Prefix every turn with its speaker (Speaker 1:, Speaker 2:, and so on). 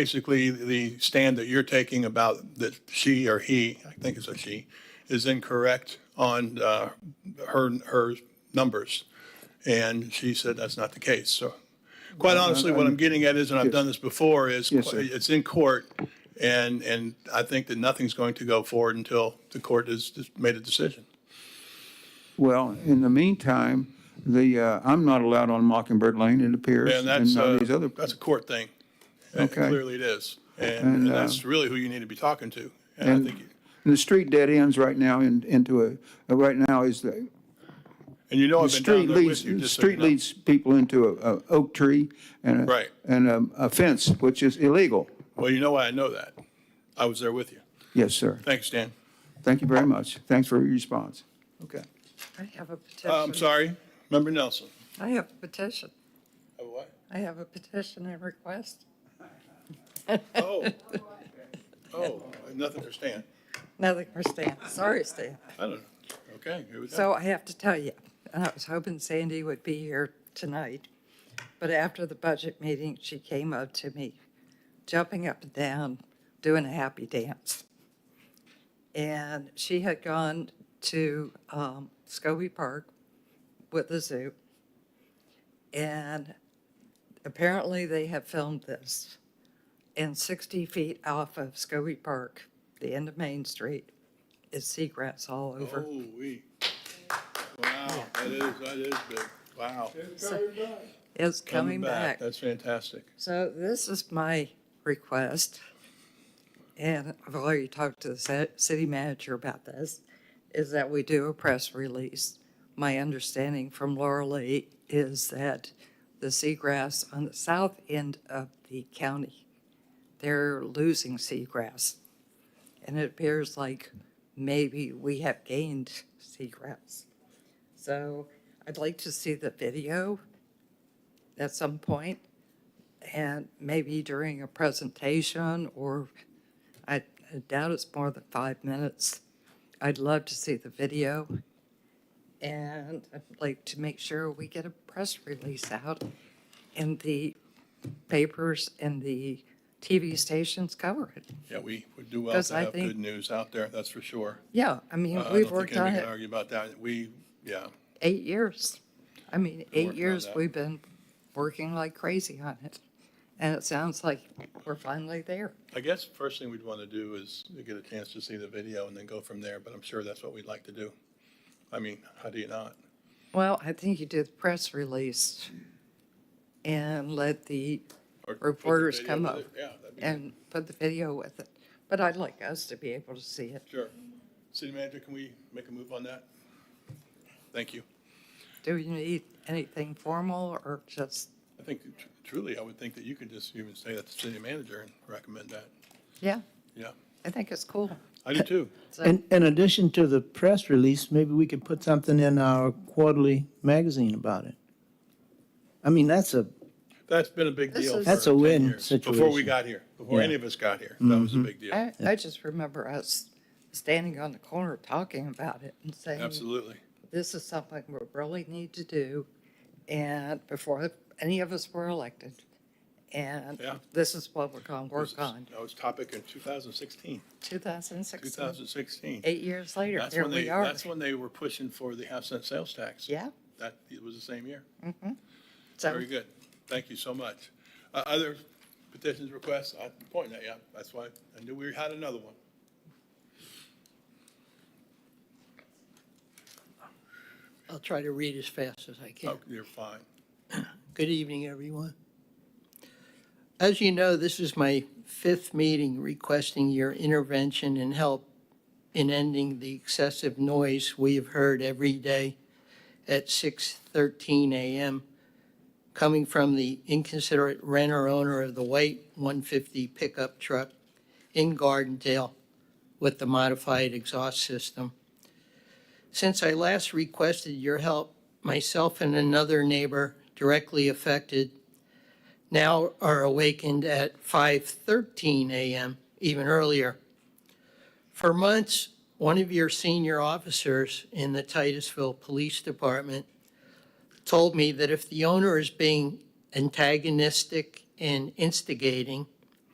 Speaker 1: basically the stand that you're taking about that she or he, I think it's a she, is incorrect on uh, her, her numbers. And she said that's not the case. So quite honestly, what I'm getting at is, and I've done this before, is
Speaker 2: Yes, sir.
Speaker 1: it's in court. And, and I think that nothing's going to go forward until the court has just made a decision.
Speaker 2: Well, in the meantime, the, uh, I'm not allowed on Mockingbird Lane, it appears.
Speaker 1: And that's,
Speaker 2: none
Speaker 1: uh,
Speaker 2: of these other,
Speaker 1: that's a court thing. Uh,
Speaker 2: Okay.
Speaker 1: Clearly it is.
Speaker 2: And,
Speaker 1: And and
Speaker 2: uh,
Speaker 1: that's really who you need to be talking to. And I
Speaker 2: and-
Speaker 1: think, you-
Speaker 2: and the street dead ends right now in- into a, uh, right now is the,
Speaker 1: and you know
Speaker 2: the
Speaker 1: I've been down
Speaker 2: street
Speaker 1: there with you.
Speaker 2: leads,
Speaker 1: just so you
Speaker 2: street
Speaker 1: know.
Speaker 2: leads people into a, a oak tree and a.
Speaker 1: Right.
Speaker 2: And a, a fence, which is illegal.
Speaker 1: Well, you know why I know that. I was there with you.
Speaker 2: Yes, sir.
Speaker 1: Thanks, Dan.
Speaker 2: Thank you very much. Thanks for your response. Okay.
Speaker 3: I have a petition.
Speaker 1: Uh, I'm sorry, Member Nelson.
Speaker 3: I have a petition.
Speaker 1: Oh, what?
Speaker 3: I have a petition and request.
Speaker 1: Oh. Oh, nothing for Stan.
Speaker 3: Nothing for Stan. Sorry, Stan.
Speaker 1: I don't know. Okay, here we go.
Speaker 3: So I have to tell you, and I was hoping Sandy would be here tonight, but after the budget meeting, she came up to me, jumping up and down, doing a happy dance. And she had gone to um, Scobie Park with the zoo. And apparently they have filmed this. And 60 feet off of Scobie Park, the end of Main Street, is seagrass all over.
Speaker 1: Oh, we. Wow, that is, that is big. Wow.
Speaker 3: is coming back.
Speaker 1: That's fantastic.
Speaker 3: So this is my request, and I've already talked to the ci- city manager about this, is that we do a press release. My understanding from Laura Lee is that the seagrass on the south end of the county, they're losing seagrass. And it appears like maybe we have gained seagrass. So I'd like to see the video at some point and maybe during a presentation, or I I doubt it's more than five minutes. I'd love to see the video. And I'd like to make sure we get a press release out and the papers and the TV stations cover it.
Speaker 1: Yeah, we would do well
Speaker 3: 'Cause
Speaker 1: to
Speaker 3: I
Speaker 1: have
Speaker 3: think-
Speaker 1: good news out there, that's for sure.
Speaker 3: Yeah, I mean,
Speaker 1: Uh, I don't
Speaker 3: we've
Speaker 1: think
Speaker 3: worked on
Speaker 1: anybody can
Speaker 3: it
Speaker 1: Argue about that. We, yeah,
Speaker 3: eight years. I mean,
Speaker 1: working
Speaker 3: eight
Speaker 1: on
Speaker 3: years
Speaker 1: that.
Speaker 3: we've been working like crazy on it. And it sounds like we're finally there.
Speaker 1: I guess first thing we'd want to do is to get a chance to see the video and then go from there, but I'm sure that's what we'd like to do. I mean, how do you not?
Speaker 3: Well, I think you do the press release and let the,
Speaker 1: Or put the
Speaker 3: Reporters
Speaker 1: video
Speaker 3: come
Speaker 1: with
Speaker 3: up
Speaker 1: it. Yeah, that'd be, good.
Speaker 3: and put the video with it. But I'd like us to be able to see it.
Speaker 1: sure. City manager, can we make a move on that? Thank you.
Speaker 3: Do you need anything formal or just,
Speaker 1: I think tr- truly, I would think that you could just even say that to city manager and recommend that.
Speaker 3: yeah,
Speaker 1: Yeah,
Speaker 3: I think it's cool.
Speaker 1: I do too.
Speaker 3: So-
Speaker 4: In, in addition to the press release, maybe we could put something in our quarterly magazine about it. I mean, that's a,
Speaker 1: That's been a big
Speaker 3: This
Speaker 1: deal.
Speaker 3: is-
Speaker 1: for
Speaker 4: That's a
Speaker 1: 10
Speaker 4: win
Speaker 1: years, Before we
Speaker 4: situation. Mm-hmm.
Speaker 1: got here, before
Speaker 4: Yeah.
Speaker 1: any of us got here, that was a big deal.
Speaker 3: I, I just remember us standing on the corner talking about it and saying,
Speaker 1: Absolutely.
Speaker 3: this is something we really need to do. And before any of us were elected. And
Speaker 1: Yeah.
Speaker 3: this is what we're going to
Speaker 1: That was-
Speaker 3: work on.
Speaker 1: That was topic in 2016,
Speaker 3: 2016,
Speaker 1: 2016.
Speaker 3: eight years later,
Speaker 1: That's
Speaker 3: here
Speaker 1: when they,
Speaker 3: we are.
Speaker 1: that's when they were pushing for the half cent sales tax.
Speaker 3: Yeah,
Speaker 1: That, it was the same year.
Speaker 3: so
Speaker 1: Very good. Thank you so much. Uh, Other petitions, requests? I'm pointing at you. That's why I knew we had another one.
Speaker 5: I'll try to read as fast as I can.
Speaker 1: Oh, You're fine.
Speaker 5: Good evening, everyone. As you know, this is my fifth meeting requesting your intervention and help in ending the excessive noise we have heard every day at 6:13 a.m. coming from the inconsiderate renter owner of the white 150 pickup truck in Gardendale with the modified exhaust system. Since I last requested your help, myself and another neighbor directly affected now are awakened at 5:13 a.m., even earlier. For months, one of your senior officers in the Titusville Police Department told me that if the owner is being antagonistic and instigating,